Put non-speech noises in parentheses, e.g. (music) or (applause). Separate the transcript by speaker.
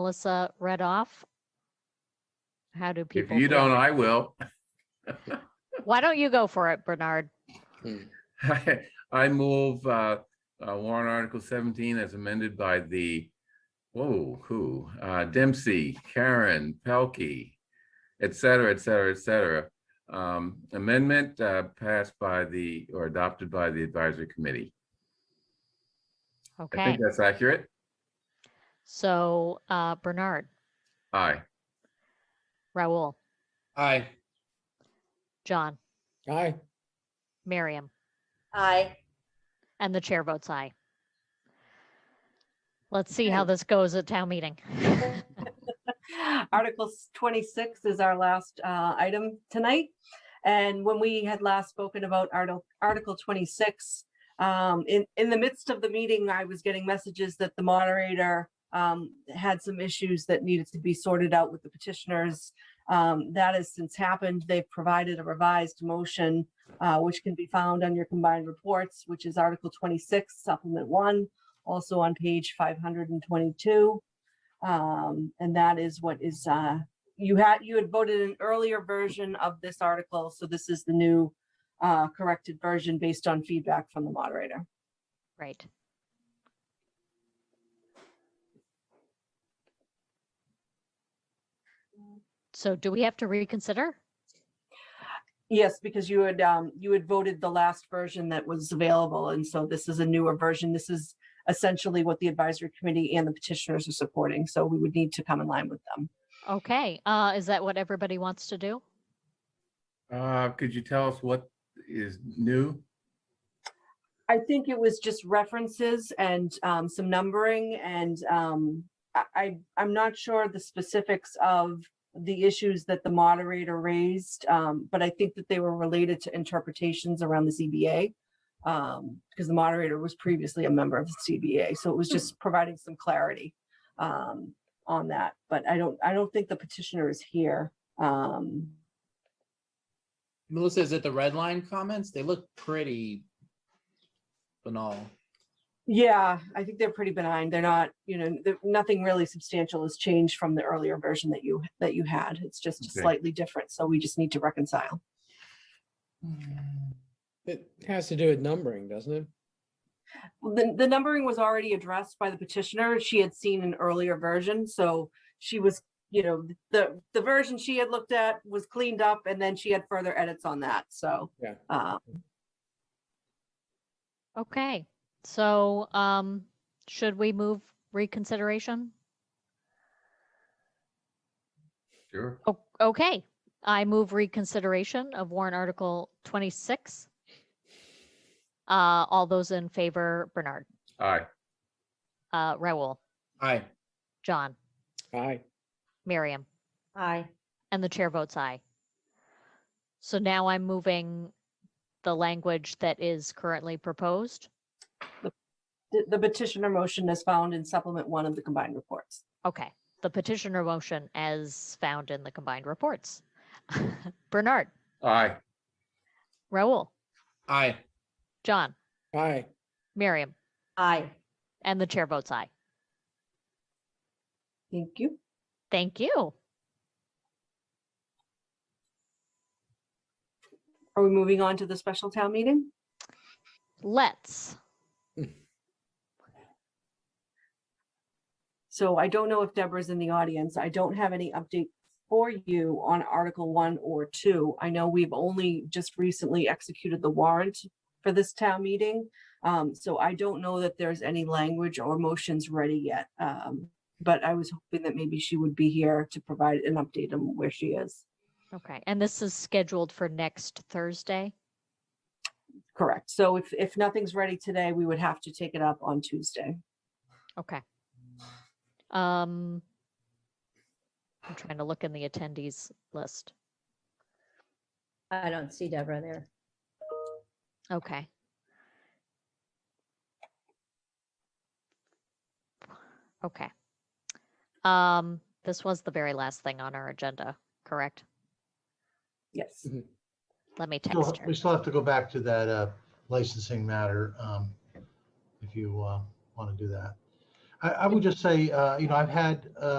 Speaker 1: Melissa read off? How do
Speaker 2: If
Speaker 1: people?
Speaker 2: you
Speaker 1: feel?
Speaker 2: don't, I will. (laughs)
Speaker 1: Why don't you go for it, Bernard?
Speaker 2: I move uh, uh, warrant article seventeen as amended by the, whoa, who, uh, Dempsey, Karen, Pelkey, et cetera, et cetera, et cetera. Um, Amendment uh, passed by the, or adopted by the advisory committee. I
Speaker 1: Okay,
Speaker 2: think that's accurate.
Speaker 1: so uh, Bernard,
Speaker 2: Aye.
Speaker 1: Raul,
Speaker 3: Aye.
Speaker 1: John,
Speaker 3: Aye.
Speaker 1: Miriam,
Speaker 4: Aye.
Speaker 1: and the chair votes aye. Let's see how this goes at town meeting. (laughs)
Speaker 4: (laughs) Article s- 26 is our last uh, item tonight. And when we had last spoken about Article, Article 26, um, in, in the midst of the meeting, I was getting messages that the moderator um, had some issues that needed to be sorted out with the petitioners. Um, That has since happened. They've provided a revised motion, uh, which can be found on your combined reports, which is Article 26, Supplement 1, also on page 522. Um, and that is what is, uh, you had, you had voted an earlier version of this article, so this is the new uh, corrected version based on feedback from the moderator.
Speaker 1: Right. So do we have to reconsider?
Speaker 4: Yes, because you had, um, you had voted the last version that was available, and so this is a newer version. This is essentially what the advisory committee and the petitioners are supporting, so we would need to come in line with them.
Speaker 1: Okay, uh, is that what everybody wants to do?
Speaker 2: Uh, Could you tell us what is new?
Speaker 4: I think it was just references and um, some numbering and um, I, I, I'm not sure the specifics of the issues that the moderator raised, um, but I think that they were related to interpretations around the CBA. Um, because the moderator was previously a member of the CBA, so it was just providing some clarity um, on that. But I don't, I don't think the petitioner is here. Um,
Speaker 3: Melissa, is it the red line comments? They look pretty banal.
Speaker 4: Yeah, I think they're pretty benign. They're not, you know, th- nothing really substantial has changed from the earlier version that you, that you had. It's just
Speaker 2: Okay.
Speaker 4: slightly different. So we just need to reconcile.
Speaker 5: Hmm. It has to do with numbering, doesn't it?
Speaker 4: Well, The, the numbering was already addressed by the petitioner. She had seen an earlier version, so she was, you know, the, the version she had looked at was cleaned up and then she had further edits on that, so.
Speaker 5: Yeah.
Speaker 4: uh,
Speaker 1: Okay, so, um, should we move reconsideration?
Speaker 2: Sure.
Speaker 1: O- Okay, I move reconsideration of warrant article twenty-six. Uh, all those in favor, Bernard,
Speaker 2: Aye.
Speaker 1: uh, Raul,
Speaker 3: Aye.
Speaker 1: John,
Speaker 5: Aye.
Speaker 1: Miriam,
Speaker 4: Aye.
Speaker 1: and the chair votes aye. So now I'm moving the language that is currently proposed.
Speaker 4: The the petitioner motion is found in supplement one of the combined reports.
Speaker 1: Okay, the petitioner motion as found in the combined reports. (laughs) Bernard,
Speaker 2: Aye.
Speaker 1: Raul,
Speaker 3: Aye.
Speaker 1: John,
Speaker 5: Aye.
Speaker 1: Miriam,
Speaker 4: Aye.
Speaker 1: and the chair votes aye.
Speaker 4: Thank you.
Speaker 1: Thank you.
Speaker 4: Are we moving on to the special town meeting?
Speaker 1: Let's.
Speaker 4: So I don't know if Deborah's in the audience. I don't have any update for you on Article One or Two. I know we've only just recently executed the warrant for this town meeting. Um, so I don't know that there's any language or motions ready yet. Um, but I was hoping that maybe she would be here to provide an update on where she is.
Speaker 1: Okay, and this is scheduled for next Thursday.
Speaker 4: Correct. So if, if nothing's ready today, we would have to take it up on Tuesday.
Speaker 1: Okay. Um, I'm trying to look in the attendees list.
Speaker 6: I don't see Deborah there.
Speaker 1: Okay. Okay. Um, this was the very last thing on our agenda, correct?
Speaker 4: Yes.
Speaker 1: Let me
Speaker 7: Still-
Speaker 1: text her.
Speaker 7: We still have to go back to that uh, licensing matter, um, if you want to do that. I, I would just say, uh, you know, I've had uh,